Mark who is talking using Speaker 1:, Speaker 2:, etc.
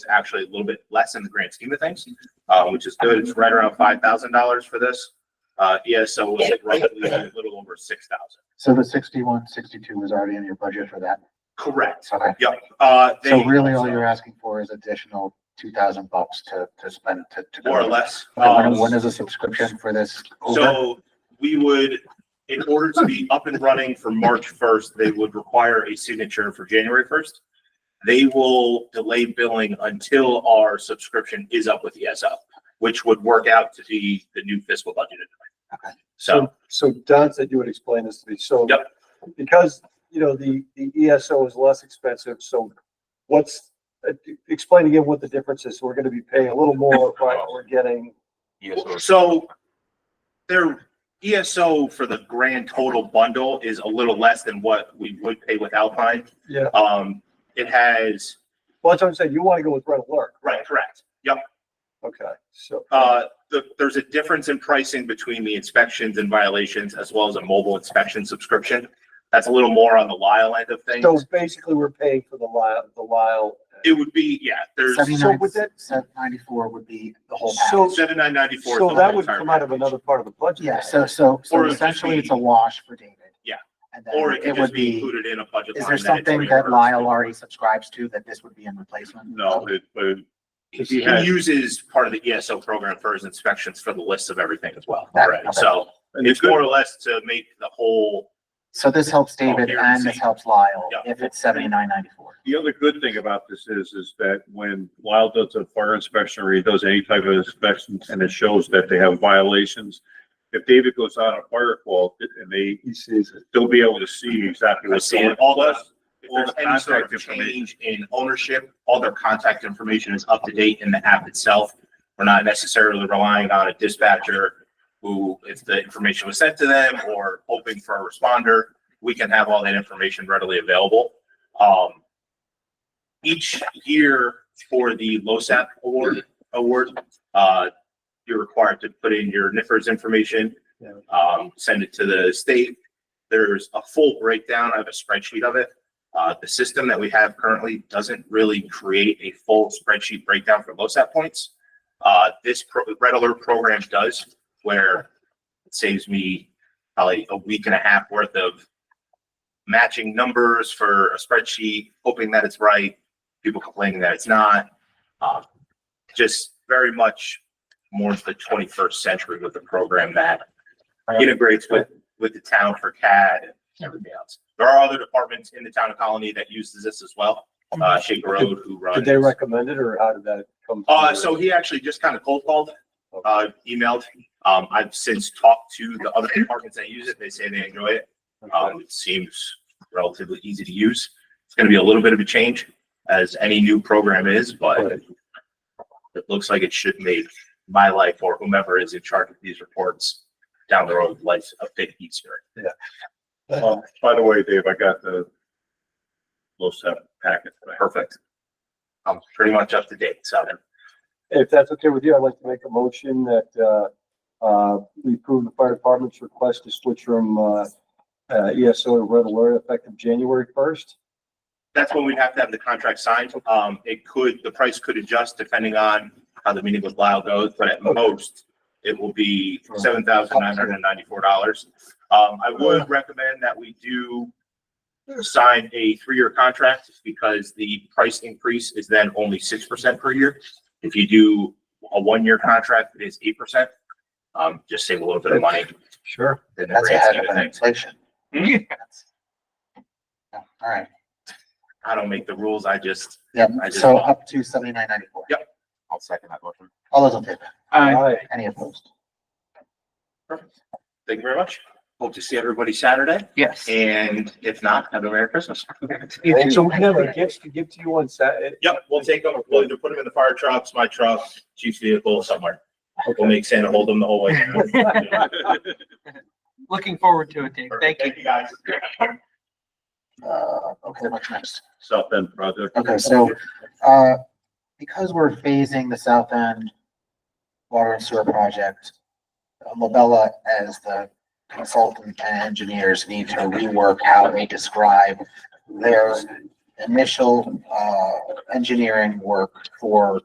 Speaker 1: actually a little bit less in the grand scheme of things, uh, which is good. It's right around five thousand dollars for this. Uh, yeah, so it's roughly a little over six thousand.
Speaker 2: So the sixty-one, sixty-two was already in your budget for that.
Speaker 1: Correct.
Speaker 2: Okay.
Speaker 1: Yep. Uh, they.
Speaker 2: So really all you're asking for is additional two thousand bucks to, to spend to. to-
Speaker 1: More or less.
Speaker 2: Okay,
Speaker 1: Um,
Speaker 2: When, when is the subscription for this? over?
Speaker 1: So we would, in order to be up and running for March first, they would require a signature for January first. They will delay billing until our subscription is up with ESO, which would work out to be the new fiscal budget.
Speaker 2: Okay.
Speaker 1: So,
Speaker 3: So Don said you would explain this to me, so.
Speaker 1: Yep.
Speaker 3: Because, you know, the, the ESO is less expensive, so what's, uh, explain again what the difference is, we're gonna be paying a little more, but we're getting.
Speaker 1: so their ESO for the grand total bundle is a little less than what we would pay with Alpine.
Speaker 3: Yeah.
Speaker 1: Um, it has,
Speaker 3: Well, that's what I'm saying, you wanna go with Red Alert,
Speaker 1: right, correct. Yep.
Speaker 3: okay, so.
Speaker 1: Uh, the, there's a difference in pricing between the inspections and violations as well as a mobile inspection subscription. That's a little more on the Lyle end of
Speaker 3: So
Speaker 1: things.
Speaker 3: basically, we're paying for the Lyle, the Lyle.
Speaker 1: It would be, yeah, there's
Speaker 2: Seventy-nine,
Speaker 3: with that-
Speaker 2: se- ninety-four would be the whole
Speaker 3: So-
Speaker 2: package.
Speaker 1: seven nine ninety four.
Speaker 3: So that would come out of another part of the budget.
Speaker 2: Yeah, so, so,
Speaker 1: Or
Speaker 2: so
Speaker 1: it would
Speaker 2: essentially
Speaker 1: be-
Speaker 2: it's a wash for David.
Speaker 1: Yeah.
Speaker 2: And
Speaker 1: Or
Speaker 2: then
Speaker 1: it
Speaker 2: it
Speaker 1: could
Speaker 2: would
Speaker 1: just be
Speaker 2: be,
Speaker 1: included in a budget.
Speaker 2: is
Speaker 1: line
Speaker 2: there
Speaker 1: it's
Speaker 2: something that
Speaker 1: reimbursed.
Speaker 2: Lyle already subscribes to that this would be in replacement?
Speaker 4: No, it, but
Speaker 1: He uses part of the ESO program for his inspections for the list of everything as well,
Speaker 2: Got it,
Speaker 1: right?
Speaker 2: okay.
Speaker 1: So
Speaker 4: and it's
Speaker 1: it's
Speaker 4: good,
Speaker 1: more or less to make the whole,
Speaker 2: So this helps David
Speaker 1: Oh, here,
Speaker 2: and this
Speaker 1: see.
Speaker 2: helps Lyle
Speaker 1: Yeah.
Speaker 2: if it's seventy-nine, ninety-four.
Speaker 4: the other good thing about this is, is that when Lyle does a fire inspection or he does any type of inspection and it shows that they have violations, if David goes out on a fire call and they,
Speaker 3: He sees it.
Speaker 4: they'll be able to see exactly
Speaker 1: I
Speaker 4: what's
Speaker 1: see
Speaker 4: going on.
Speaker 1: it, all the, if
Speaker 4: All the
Speaker 1: there's any sort
Speaker 4: contact
Speaker 1: of
Speaker 4: information.
Speaker 1: change in ownership, all their contact information is up to date in the app itself. We're not necessarily relying on a dispatcher who, if the information was sent to them or hoping for a responder, we can have all that information readily available. Um, each year for the LoSAP award, award, uh, you're required to put in your NIFRS information,
Speaker 3: Yeah.
Speaker 1: um, send it to the state. There's a full breakdown. I have a spreadsheet of it. Uh, the system that we have currently doesn't really create a full spreadsheet breakdown for LoSAP points. Uh, this pro- Red Alert program does where it saves me probably a week and a half worth of matching numbers for a spreadsheet, hoping that it's right, people complaining that it's not. Uh, just very much more the twenty-first century with the program that integrates with, with the town for CAD and everything else. There are other departments in the town of Colony that uses this as well. Uh, Shaker Road who runs.
Speaker 3: Did they recommend it, or how did that come?
Speaker 1: Uh,
Speaker 3: forward?
Speaker 1: so he actually just kind of cold called, uh, emailed. Um, I've since talked to the other departments that use it. They say they enjoy it.
Speaker 3: Okay.
Speaker 1: Um, it seems relatively easy to use. It's gonna be a little bit of a change as any new program is, but it looks like it should make my life or whomever is in charge of these reports down the road, life a bit easier.
Speaker 4: Um, By the way, Dave, I got the LoSAP packet. that I
Speaker 1: Perfect. I'm pretty much up to date, so.
Speaker 3: If that's okay with you, I'd like to make a motion that, uh, uh, we approve the fire department's request to switch from, uh, uh, ESO to red alert effective January first.
Speaker 1: that's when we'd have to have the contract signed. Um, it could, the price could adjust depending on how the meeting with Lyle goes, but at most, it will be seven thousand nine hundred and ninety-four dollars. Um, I would recommend that we do sign a three-year contract because the price increase is then only six percent per year. If you do a one-year contract, it is eight percent. Um, just save a little bit of money
Speaker 3: Sure.
Speaker 1: in the
Speaker 2: That's
Speaker 1: grand
Speaker 2: ahead
Speaker 1: scheme of
Speaker 2: of
Speaker 1: things.
Speaker 2: inflation.
Speaker 1: Hmm?
Speaker 2: That's- Yeah, All right,
Speaker 1: I don't make the rules. I just,
Speaker 2: yeah,
Speaker 1: I just-
Speaker 2: so up to seventy-nine, ninety-four.
Speaker 1: Yep.
Speaker 2: I'll second that motion. All those in favor?
Speaker 3: All right,
Speaker 2: Any opposed?
Speaker 1: thank you very much. Hope to see everybody Saturday.
Speaker 5: Yes.
Speaker 1: And if not, have a Merry Christmas.
Speaker 3: so we have our gifts to give to you on Saturday.
Speaker 1: Yep, we'll take them, we'll either put them in the fire trucks, my truck, chief's vehicle, somewhere. We'll make Santa hold them the whole way.
Speaker 5: Looking forward to it, Dave. Thank you.
Speaker 1: Thank you, guys.
Speaker 2: Uh, okay, what's next?
Speaker 4: South End project.
Speaker 2: Okay, so, uh, because we're phasing the south end water and sewer project, uh, Labella as the consultant and engineers need to rework how they describe their initial, uh, engineering work for